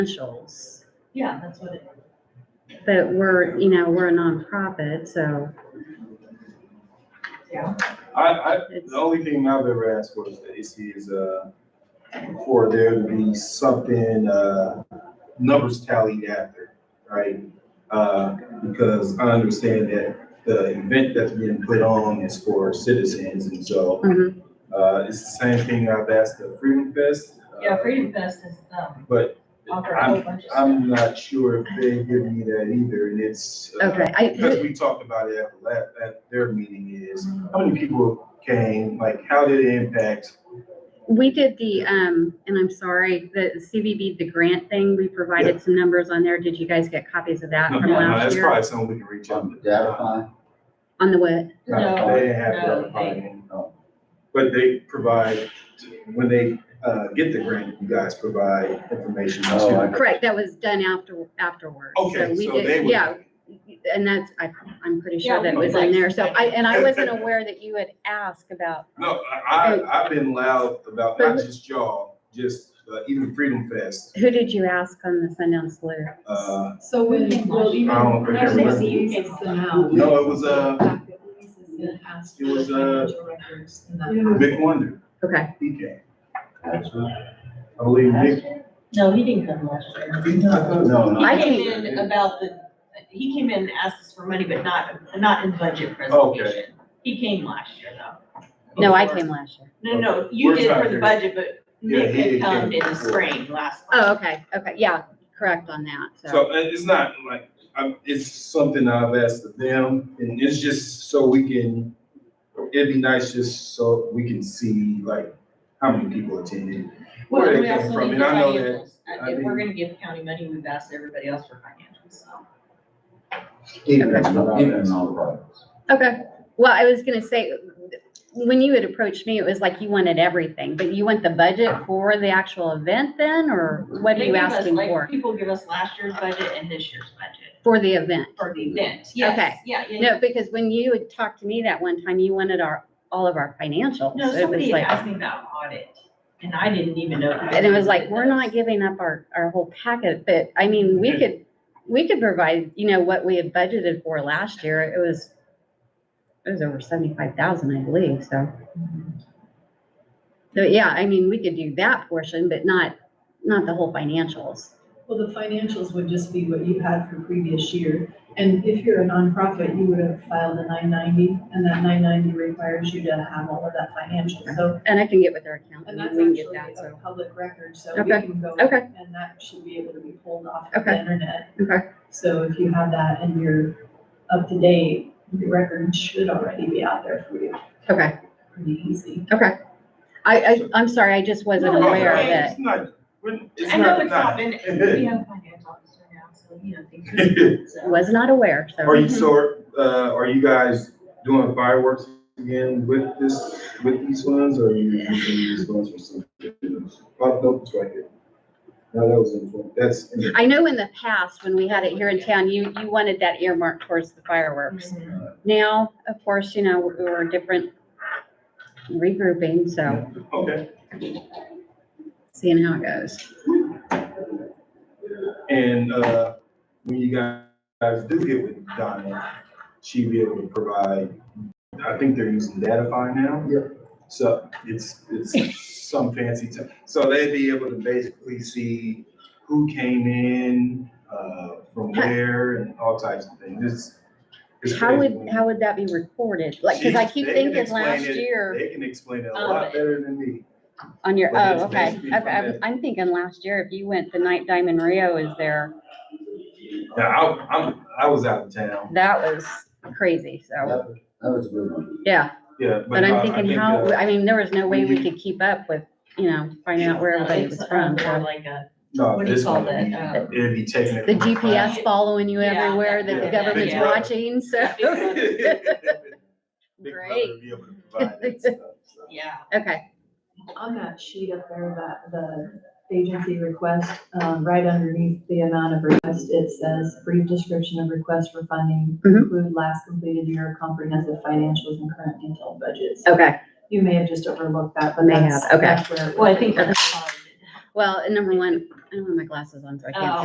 essentials. Yeah, that's what it, But we're, you know, we're a nonprofit, so yeah. I, I, it's, the only thing I've ever asked for is the AC is, uh, for there to be something, uh, numbers tallied after, right? Uh, because I understand that the event that's being put on is for citizens, and so, Mhm. uh, it's the same thing I've asked the Freedom Fest. uh, Yeah, Freedom Fest is, um, But offer a whole I'm, bunch of stuff. Uh, I'm not sure if they give me that either, and it's. uh, okay, I, Because we talked about it at the last, at their meeting is, how many people came, like, how did it impact? we did the, um, and I'm sorry, the CVB, the grant thing, we provided some numbers on there. Did you guys get copies of that No, from no, no, last That's year? probably something we can reach out to. Datafy? On the what? No, They didn't have No, no, that funding. no. But they provide, when they, uh, get the grant, you guys provide information. to- Oh, I- Correct, that was done after, afterwards. Okay, we so did- they would. Yeah, and that's, I, I'm pretty Yeah, sure that we was in did. there. So I, and I wasn't aware that you had asked about, No, I, I- I've been loud about not just y'all, just, uh, even Freedom Fest, who did you ask on the Sundown Slew? uh, So when, well, even, I don't I remember. it's the now. no, it was, uh, It it was, uh, records and that. Big Wonder, Okay, he came. I believe Nick. No, he didn't come last year. No, no. I He came think- in about the, he came in and asked us for money, but not, not in budget Okay. presentation. He came last year though. no, I came last year. No, no, you We're did for talking- the budget, but Yeah, Nick he had came come in the before. spring last. Oh, okay, okay, yeah, correct on that, so. So uh, it's not like, i it's something I've asked of them, and it's just so we can, it'd be nice just so we can see like how many people attended. Where Well, they we came also from, need and the I know that- financials. I If Uh, we're mean- gonna give county money, we've asked everybody else for financials, so. Even, That's what I'm even asking. nonprofits. Okay, well, I was gonna say, when you had approached me, it was like you wanted everything, but you want the budget for the actual event then, or what are They you give us, asking like, for? People give us last year's budget and this year's budget For the event? for the event, yes, Okay. yeah, yeah, yeah. No, because when you had talked to me that one time, you wanted our, all of our financials. No, It was somebody had like, asked me about audit, and I didn't even know. and it was like, we're not giving up our, our whole packet, but I mean, we could, we could provide, you know, what we had budgeted for last year. It was, it was over seventy-five thousand, I believe, so. So, yeah, I mean, we could do that portion, but not, not the whole financials. Well, the financials would just be what you had for previous year. And if you're a nonprofit, you would have filed a nine ninety, and that nine ninety requires you to have all of that financial. So, And I can get with our accountant and and that's we can actually get that, a so. public record, so we Okay, can go. okay. And that should be able to be pulled off of Okay, the internet. okay. So if you have that and you're up to date, your record should already be out there for you, Okay, pretty easy. okay. I, I, I'm sorry, I just wasn't No, it's aware of okay. it. It's not, we're- it's I know not, it's not not. been, we have a finance officer now, so, you know, things. are different, so. Was not aware, so. Are you, so, uh, are you guys doing fireworks again with this, with these ones, or are you using these ones for something? else? Oh, no, it's right here. No, that was, in- that's, in- I know in the past, when we had it here in town, you, you wanted that earmark towards the fireworks. Mhm. Mm-hmm. Now, of course, you know, we we're different regrouping, so okay. seeing how it goes. And uh, when you guys do get with Donna, she'll be able to provide, I think they're using Datafy now. Yep. So it's, it's some fancy term. So they'd be able to basically see who came in, uh, from where and all types of things. It's- it's How would, crazy. how would that be recorded? Like, cause I She- keep they can thinking explain last it- year They can explain it a Oh, Um, lot better than me. on your, but it's oh, okay. basically Okay, from I'm, that- I'm thinking last year, if you went the night Diamond Rio is there, Now, I, I'm, I was out of town, that was crazy, so, That that was a good one. yeah. yeah. But no, I I'm thinking think, uh, how, I mean, there was no way we mhm. could keep up with, you know, finding out where No, everybody it's, was uh, from, More so. like a, No, what do you this call one, that? would Um, be- it'd be taken. Uh, the from the cloud. GPS following you Yeah, everywhere that the yeah, government's Big Brother. watching, so. Big Brother. Big brother Great, be able to provide that stuff, so. yeah. okay, On that sheet up there, that the agency request, um, right underneath the amount of request, it says brief description of request for funding, Mhm. include last completed year of comprehensive financials and current detailed budgets. okay, You may have just overlooked that, but May that's. have, okay. that's where it Well, I was. think that's Well, and number one, I don't have my glasses on, so I can't Oh.